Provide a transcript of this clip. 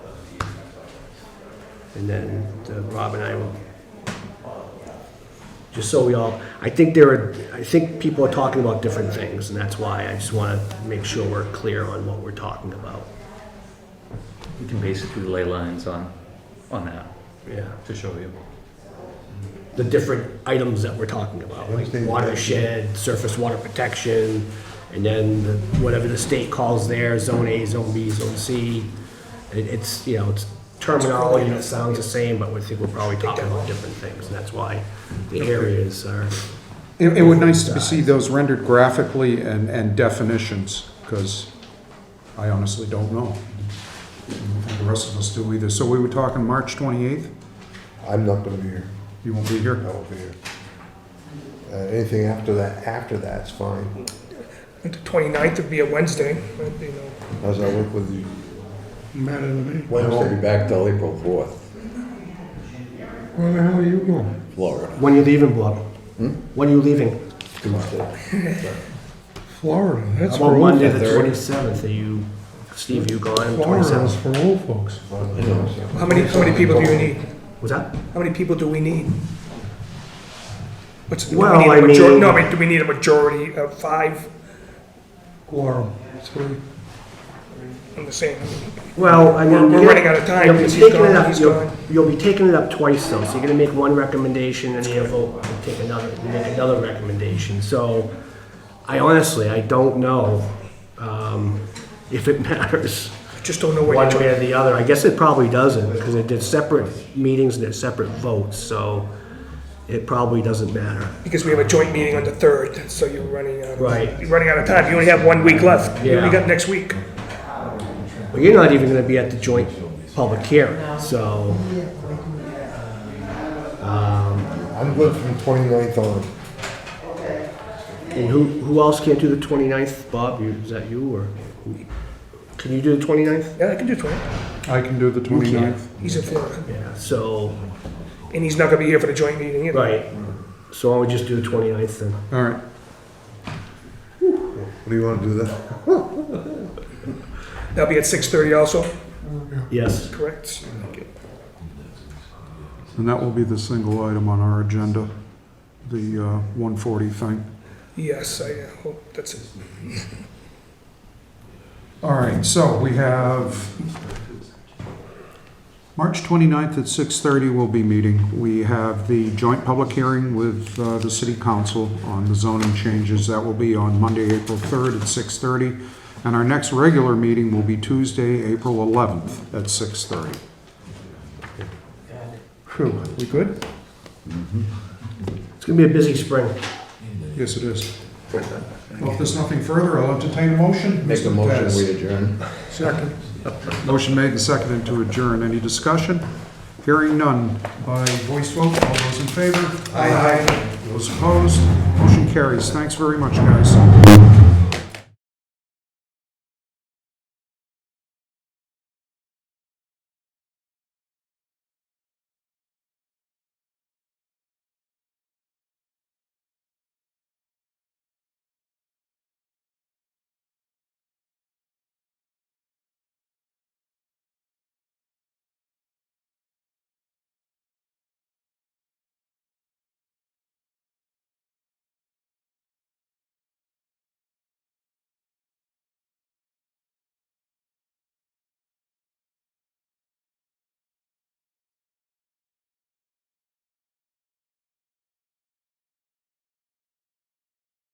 And then uh, Rob and I will, just so we all, I think there are, I think people are talking about different things, and that's why I just want to make sure we're clear on what we're talking about. We can basically lay lines on, on that Yeah, to show you. the different items that we're talking about, like Understand. watershed, surface water protection, and then the- whatever the state calls there, zone A, zone B, zone C. It- It's, you know, it's terminology that sounds the same, but we think we're probably talking about different things, and that's why the areas are. It, it would nice to see those rendered graphically and, and definitions, because I honestly don't know. And The rest of us do either. So we were talking March 28th? I'm not gonna be here, You won't be here? I won't be here. Uh, anything after that, after that's fine, The 29th would be a Wednesday, but, you know, how's that work with you? Matter to me. Wednesday? I won't be back till April fourth, Where the hell are you going? Florida. When are you leaving, Bob? When are you leaving? Tuesday. Florida, that's Well, for Monday, old, the twenty-seventh, are you, Steve, you gone Florida is twenty-seventh? for old folks. how many, how many people do you need? What's that? How many people do we need? What's, do we Well, need I a majority, mean- no, I mean, do we need a majority of five Quorum, three. on the same? I mean, Well, I mean. We're- we're you're- running out of time you'll be because he's taking it gone, up- he's you'll- gone. You'll be taking it up twice though, so you're gonna make one recommendation and you'll vote and take another, and make another recommendation. So I honestly, I don't know, um, if it matters I Just don't know one what way you're, or the other. I guess it probably doesn't because it did separate meetings and it separate votes, so it probably doesn't matter. because we have a joint meeting on the 3rd, so you're running out of. Right. You're running out of time, you only have one week left. You only Yeah. got next week. But you're not even gonna be at the joint public hearing, so. I'm good from 29th on. And who, who else can't do the 29th? Bob, you, is that you or? who- Can you do the 29th? Yeah, I can do 20. I can do the 29th. He's in Florida, Yeah, so, and he's not gonna be here for the joint meeting either. right. So I would just do the 29th then. All right. What do you wanna do that? That'll be at 6:30 also, Yes. correct? And that will be the single item on our agenda, the uh, 140 thing. Yes, I uh, hope that's it. All right, so we have, March 29th at 6:30 we'll be meeting. We have the joint public hearing with uh, the city council on the zoning changes. That will be on Monday, April 3rd at 6:30. And our next regular meeting will be Tuesday, April 11th at 6:30. Phew, we good? It's gonna be a busy spring. Yes, it is. Well, if there's nothing further, I'll entertain a motion. Make a Mr. motion, Pettis. we adjourn. Second. Motion made and seconded to adjourn. Any discussion? Hearing none. By voice vote, all those in favor? Aye. Those opposed? Motion carries. Thanks very much, guys.